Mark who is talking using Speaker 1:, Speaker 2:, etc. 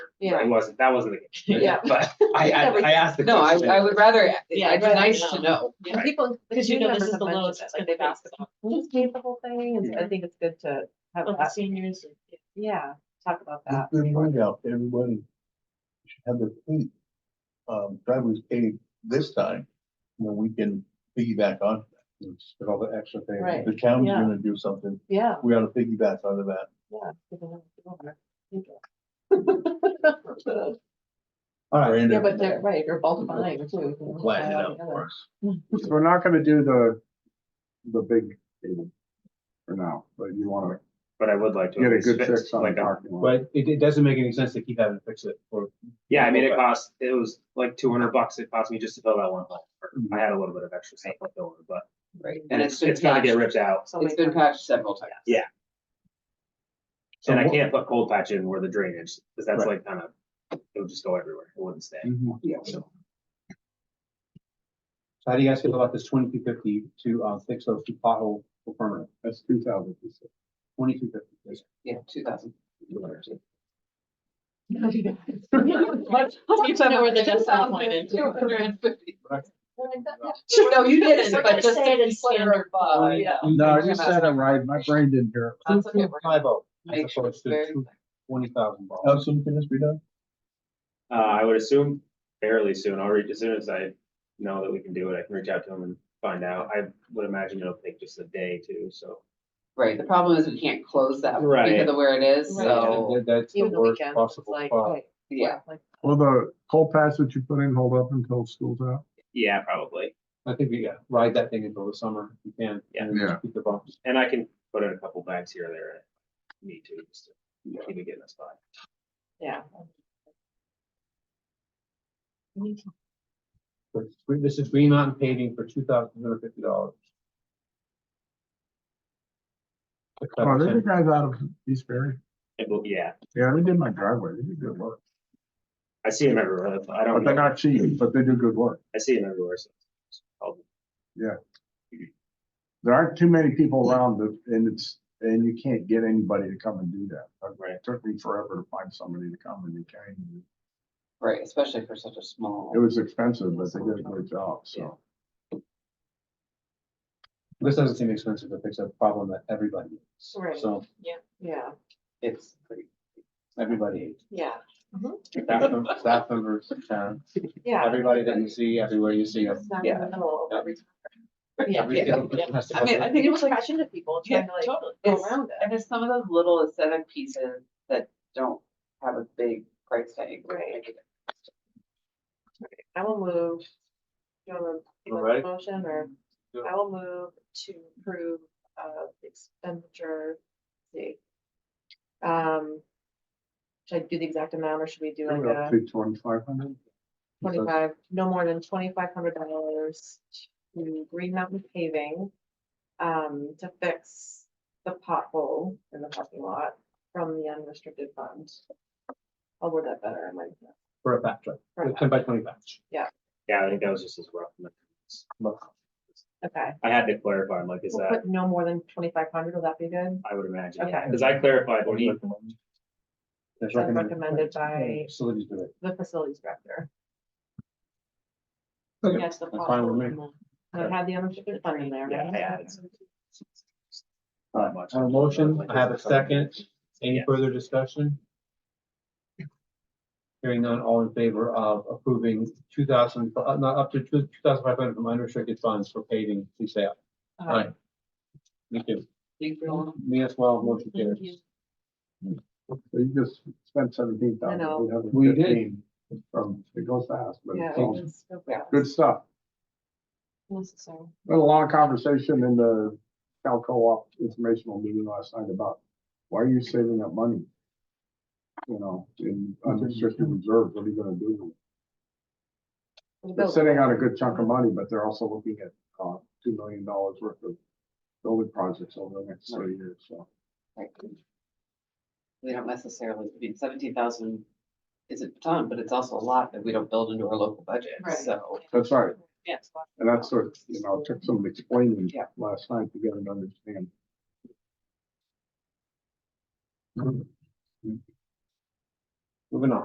Speaker 1: Yeah.
Speaker 2: It wasn't, that wasn't the case.
Speaker 1: Yeah.
Speaker 2: But I, I, I asked the
Speaker 3: No, I,
Speaker 2: question.
Speaker 3: I would rather,
Speaker 1: Yeah,
Speaker 3: it'd be
Speaker 1: I'd rather
Speaker 3: nice to
Speaker 1: know.
Speaker 3: know.
Speaker 1: Yeah.
Speaker 2: Right.
Speaker 1: People.
Speaker 4: Because you
Speaker 1: new
Speaker 4: know this
Speaker 1: members
Speaker 4: is the
Speaker 1: have
Speaker 4: lowest
Speaker 1: mentioned
Speaker 4: it's
Speaker 1: that,
Speaker 4: gonna
Speaker 1: like, they've
Speaker 4: be.
Speaker 1: asked about
Speaker 4: We just paid the whole thing, and I think it's good to have
Speaker 1: of the
Speaker 4: that,
Speaker 1: seniors. and-
Speaker 4: yeah, talk about that.
Speaker 5: Good point out, everybody should have their fleet, um, drivers paid this time, and then we can piggyback on.
Speaker 2: With all the extra things.
Speaker 4: Right.
Speaker 5: The county's
Speaker 4: Yeah.
Speaker 5: gonna do something,
Speaker 4: Yeah,
Speaker 5: we ought to piggyback onto that.
Speaker 4: yeah. give them- give them that.
Speaker 5: All right.
Speaker 4: Yeah, but they're right, or bulk buying too.
Speaker 5: Flatten it out for us.
Speaker 6: So we're not gonna do the, the big table for now, but you wanna
Speaker 2: But I would like to.
Speaker 6: get
Speaker 2: at
Speaker 6: a
Speaker 2: least
Speaker 6: good
Speaker 2: fix,
Speaker 6: fix on the
Speaker 2: like, a-
Speaker 6: parking lot.
Speaker 7: But it, it doesn't make any sense to keep having to fix it or
Speaker 2: Yeah, I mean, it cost, it was like two hundred bucks. It cost me just to fill that one hole.
Speaker 6: Mm-hmm.
Speaker 2: I had a little bit of extra stuff left over, but
Speaker 3: Right, and it's
Speaker 2: it's,
Speaker 3: been
Speaker 2: it's gonna
Speaker 3: patched,
Speaker 2: get ripped out.
Speaker 3: it's been patched several times.
Speaker 2: Yeah.
Speaker 6: So
Speaker 2: And I
Speaker 6: what-
Speaker 2: can't put cold patch in where the drainage, because that's like kind of, it would just go everywhere. It wouldn't stay.
Speaker 6: Mm-hmm.
Speaker 7: Mhm. So how do you guys feel about this twenty-two fifty to, uh, fix those two pothole for permanent?
Speaker 6: That's two thousand.
Speaker 7: Twenty-two fifty.
Speaker 3: Yeah, two thousand.
Speaker 1: Let's keep them where the decimal point is.
Speaker 3: No, you didn't,
Speaker 4: We're
Speaker 3: but
Speaker 4: gonna
Speaker 3: just.
Speaker 4: say it in standard.
Speaker 3: above, yeah.
Speaker 6: No, I just said it right. My brain didn't hear. it.
Speaker 3: That's okay, we're gonna
Speaker 7: Five oh,
Speaker 3: make
Speaker 7: as
Speaker 3: sure it's
Speaker 7: opposed
Speaker 3: very
Speaker 7: to twenty thousand
Speaker 5: How
Speaker 7: dollars.
Speaker 5: soon can this be done?
Speaker 2: Uh, I would assume fairly soon. I'll reach as soon as I know that we can do it. I can reach out to him and find out. I would imagine it'll take just a day too, so.
Speaker 3: Right, the problem is we can't close that
Speaker 2: Right.
Speaker 3: because of where it is,
Speaker 4: Right.
Speaker 3: so,
Speaker 7: That's the
Speaker 4: Even the
Speaker 7: worst
Speaker 4: weekend, it's
Speaker 7: possible
Speaker 4: like,
Speaker 7: spot.
Speaker 4: right,
Speaker 3: yeah.
Speaker 4: like,
Speaker 6: Will the coal patch that you put in hold up until school's out?
Speaker 2: Yeah, probably.
Speaker 7: I think we, yeah, ride that thing until the summer if you can.
Speaker 2: Yeah.
Speaker 7: and just
Speaker 6: Yeah.
Speaker 7: Keep the bumps.
Speaker 2: And I can put in a couple bags here or there. if Need to, just to keep it getting us by.
Speaker 4: Yeah.
Speaker 7: But This is Green Mountain paving for two thousand two hundred fifty dollars.
Speaker 6: Oh, they're the guys out of East Berry.
Speaker 2: It will- Yeah,
Speaker 6: Yeah, they did my driveway. They did good work.
Speaker 2: I see them everywhere. That's-
Speaker 5: Oh,
Speaker 2: I
Speaker 6: But
Speaker 2: don't
Speaker 6: they're
Speaker 2: know.
Speaker 6: not cheap, but they do good work.
Speaker 2: I see them everywhere. so it's probably-
Speaker 6: There aren't too many people around that- and it's, and you can't get anybody to come and do that.
Speaker 2: Right.
Speaker 6: It took me forever to find somebody to come and they came.
Speaker 3: Right, especially for such a small.
Speaker 6: It was expensive, but they did a great job, so.
Speaker 7: This doesn't seem expensive to fix a problem that everybody needs.
Speaker 4: Right.
Speaker 7: So
Speaker 4: Yeah,
Speaker 7: it's pretty, everybody,
Speaker 4: yeah,
Speaker 7: staff, mem- staff members, town,
Speaker 4: yeah.
Speaker 7: everybody that you see, everywhere you see them.
Speaker 4: It's not in
Speaker 3: Yeah.
Speaker 4: the middle of
Speaker 7: Yeah.
Speaker 4: every- Yeah.
Speaker 7: Every single person has to
Speaker 3: I mean,
Speaker 7: go
Speaker 3: I
Speaker 4: It
Speaker 3: think
Speaker 4: was
Speaker 3: it's
Speaker 4: like
Speaker 3: like,
Speaker 4: passion to people
Speaker 3: Yeah,
Speaker 4: trying to like
Speaker 3: totally.
Speaker 4: go
Speaker 3: It's-
Speaker 4: around it.
Speaker 3: and there's some of those little aesthetic pieces that don't have a big price tag.
Speaker 4: Right. I will move. Do you want to
Speaker 7: All
Speaker 4: make
Speaker 7: right.
Speaker 4: a motion or
Speaker 7: Yeah.
Speaker 4: I will move to approve uh the expenditure. let's See. Um. Should I do the exact amount or should we do like
Speaker 6: We're up
Speaker 4: a
Speaker 6: to twenty-five hundred.
Speaker 4: twenty-five, no more than twenty-five hundred dollars to Green Mountain paving? Um, to fix the pothole in the parking lot from the unrestricted fund. I'll word that better. I might.
Speaker 7: For a batch,
Speaker 4: For a
Speaker 7: right? Ten by twenty batch.
Speaker 2: Yeah, I think that was just as rough.
Speaker 4: Okay.
Speaker 2: I had to clarify, I'm like, is
Speaker 4: We'll
Speaker 2: that,
Speaker 4: put no more than twenty-five hundred, will that be good?
Speaker 2: I would imagine,
Speaker 4: Okay.
Speaker 2: because I clarified when he,
Speaker 7: That's
Speaker 4: That's recommended by
Speaker 7: Facilities do it.
Speaker 4: the facilities director.
Speaker 7: Okay.
Speaker 4: Yes, the.
Speaker 7: That's fine with me.
Speaker 4: possible. So it had the unrestricted fund in there,
Speaker 2: yeah,
Speaker 4: right?
Speaker 2: I added some.
Speaker 7: All
Speaker 2: Not
Speaker 7: right,
Speaker 2: much.
Speaker 7: I have a motion, I have a second. Any
Speaker 2: Yeah.
Speaker 7: further discussion? Hearing none, all in favor of approving two thousand, uh, not up to two thousand five hundred from unrestricted funds for paving, please say aye.
Speaker 4: Uh,
Speaker 7: Aye. Thank you.
Speaker 3: Thank you.
Speaker 7: Me as well, motion carries.
Speaker 6: So you just spent seventeen thousand.
Speaker 4: know.
Speaker 7: We did.
Speaker 6: From, it goes fast, but
Speaker 4: Yeah.
Speaker 6: it's all
Speaker 4: it's so bad.
Speaker 6: good stuff.
Speaker 4: Necessary.
Speaker 6: Had a long conversation in the Cal Co-op informational meeting last night about why are you saving up money? You know, in unrestricted reserves, what are you gonna do? with it? They're sitting on a good chunk of money, but they're also looking at, uh, two million dollars worth of building projects over the next three years, so.
Speaker 3: We don't necessarily, I mean, seventeen thousand is a ton, but it's also a lot that we don't build into our local budget,
Speaker 4: Right.
Speaker 3: so.
Speaker 6: That's right.
Speaker 4: Yes.
Speaker 6: And that's what, you know, it took some explaining
Speaker 3: Yeah.
Speaker 6: last night to get an understanding.
Speaker 7: Mm-hmm. Moving on.